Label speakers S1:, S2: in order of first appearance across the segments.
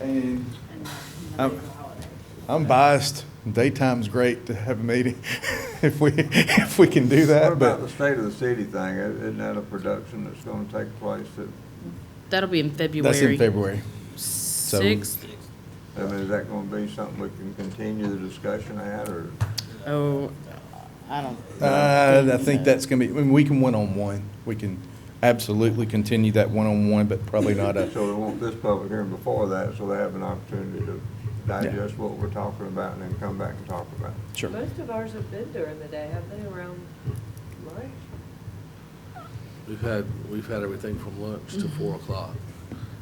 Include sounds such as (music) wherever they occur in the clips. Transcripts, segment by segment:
S1: and
S2: and the
S1: I'm-
S2: holiday.
S1: I'm biased. Daytime's great to have a meeting (laughs) if we, if we can do that,
S3: What
S1: but
S3: about the state of the city thing? Isn't that a production that's gonna take place that,
S4: That'll be in February.
S1: that's in February.
S4: Sixth.
S3: I mean, is that gonna be something we can continue the discussion at, or?
S4: Oh, I don't.
S1: Uh, I think that's gonna be, I mean, we can one-on-one. We can absolutely continue that one-on-one, but uh, probably not a,
S3: So they want this public hearing before that, so they have an opportunity to digest what we're talking about and then come back and talk about it.
S1: sure.
S5: Most of ours have been during the day, have they, around lunch?
S6: We've had, we've had everything from lunch to four o'clock.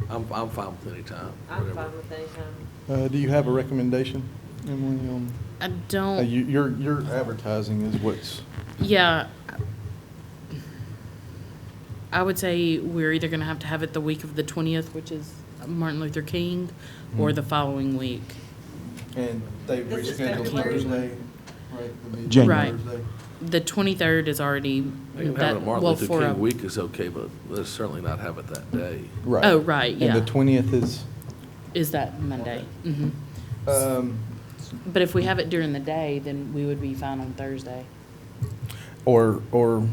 S6: I'm, I'm fine with any time,
S5: Mm-hmm. I'm
S6: whatever.
S5: fine with any time.
S1: Uh, do you have a recommendation, Emily, on,
S4: I
S1: uh,
S4: don't.
S1: you, your, your advertising is what's,
S4: Yeah. I would say we're either gonna have to have it the week of the twentieth, which is Martin Luther King, or
S1: Mhm.
S4: the following week.
S1: and they
S5: This is rescheduled February. Thursday,
S1: right?
S4: January. Right. The twenty-third is already.
S6: I think
S4: that-
S6: having a Martin
S4: well,
S6: Luther
S4: for a-
S6: King week is okay, but let's certainly not have it that day.
S1: Right.
S4: Oh, right, yeah.
S1: And the twentieth is,
S4: Is that Monday? hmm
S1: um,
S4: But if we have it during the day, then we would be fine on Thursday.
S1: or, or,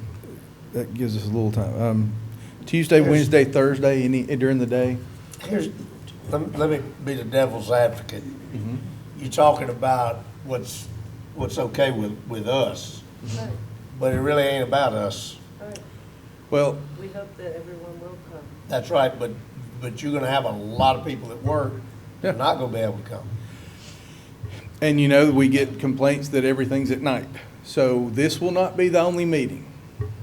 S1: that gives us a little time. Um, Tuesday,
S7: Yes.
S1: Wednesday, Thursday, any, during the day?
S7: Here's, let, let me be the devil's advocate. You're talking about what's, what's okay with, with us,
S5: Right,
S7: but it really ain't about us.
S5: right.
S1: Well,
S5: We hope that everyone will come.
S7: That's right, but, but you're gonna have a lot of people at work that are
S1: Yeah.
S7: not gonna be able to come.
S1: and you know, we get complaints that everything's at night. So this will not be the only meeting.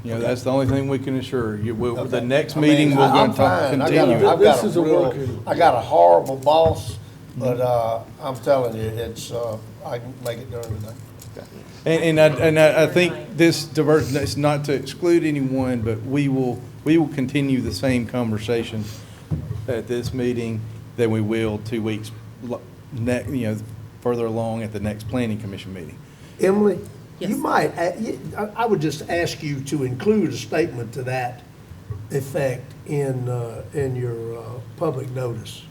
S1: You know, that's the only thing we can assure you. We'll- The
S7: Okay.
S1: next
S7: I mean,
S1: meeting, we're
S7: I- I'm
S1: going to
S7: fine. I got a-
S1: continue.
S7: I've got
S6: This
S7: a
S6: is a
S7: real-
S6: working-
S7: I got a horrible boss,
S1: Mm-hmm.
S7: but, uh, I'm telling you, it's, uh, I can make it during the day.
S1: And, and I, and I, I think this diversion, it's not to exclude anyone, but we will, we will continue the same conversation at this meeting than we will two weeks, lo- ne, you know, further along at the next planning commission meeting.
S8: Emily, you
S4: Yes.
S8: might, uh, you- I- I would just ask you to include a statement to that effect in, uh, in your uh, public notice.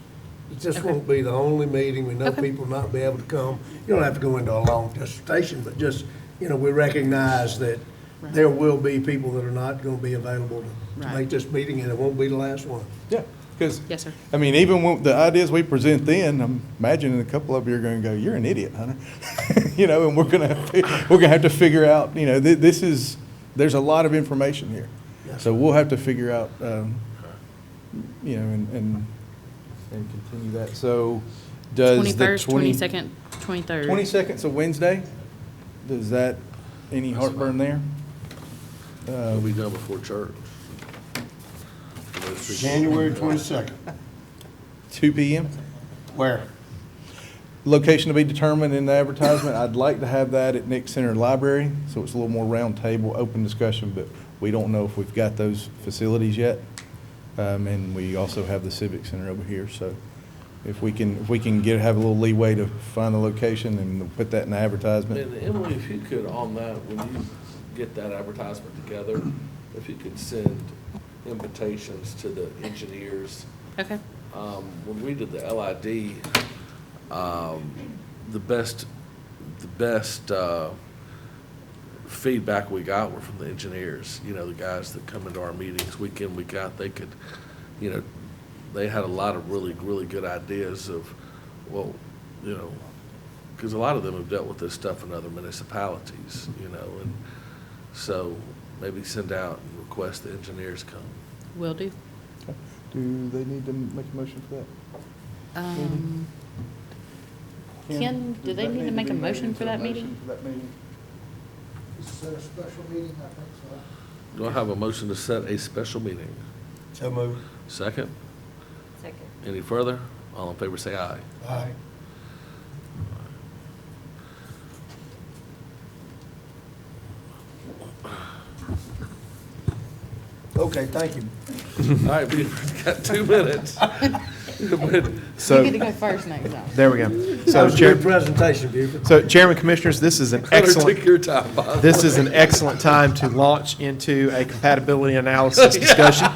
S8: It just won't be the only meeting, we know
S4: Okay.
S8: people not be able to come. You don't have to go into a long dissertation, but just, you know, we recognize that there will be people that are not going to be available to- to
S4: Right.
S8: make this meeting, and it won't be the last one.
S1: Yeah, because.
S4: Yes, sir.
S1: I mean, even when the ideas we present then, I'm imagining a couple of you are gonna go, you're an idiot, Hunter. (laughs) You know, and we're gonna, we're gonna have to figure out, you know, thi- this is, there's a lot of information here.
S8: Yes.
S1: So we'll have to figure out, um, you know, and, and, and continue that. So does the
S4: Twenty-first,
S1: twenty?
S4: twenty-second, twenty-third.
S1: Twenty-second's a Wednesday? Does that, any heartburn there?
S6: It'll
S1: Uh,
S6: be done before church. Those three-
S7: January twenty-second.
S1: two P M?
S7: Where?
S1: Location to be determined in the advertisement. I'd like to have that at Nick Center Library, so it's a little more round table, open discussion, but we don't know if we've got those facilities yet. Um, and we also have the Civic Center over here, so if we can, if we can get, have a little leeway to find the location and we'll put that in the advertisement.
S6: And Emily, if you could, on that, when you get that advertisement together, if you could send invitations to the engineers
S4: Okay,
S6: um, when we did the LID, um, the best, the best, uh, feedback we got were from the engineers, you know, the guys that come into our meetings week in, week out, they could, you know, they had a lot of really, really good ideas of, well, you know, because a lot of them have dealt with this stuff in other municipalities, you know, and so maybe send out and request the engineers come.
S4: will do.
S1: Do they need to make a motion for that?
S4: Um, Ken, do they need to make a motion for that meeting?
S9: Is there a special meeting? I think so.
S6: Do I have a motion to set a special meeting?
S7: So moved.
S6: Second,
S5: Second.
S6: any further? All in favor
S10: (laughs)
S6: say aye.
S7: Aye.
S1: Okay, thank you.
S6: All right, we've got two minutes.
S4: You
S10: So,
S4: get to go first next time.
S10: there we go.
S8: That
S10: So,
S8: was a good
S10: Chair,
S8: presentation, Buford.
S10: so Chairman Commissioners, this is an
S6: Hunter, Take
S10: excellent,
S6: your time, Bob.
S10: this is an
S6: (laughs)
S10: excellent time to launch into a compatibility analysis discussion.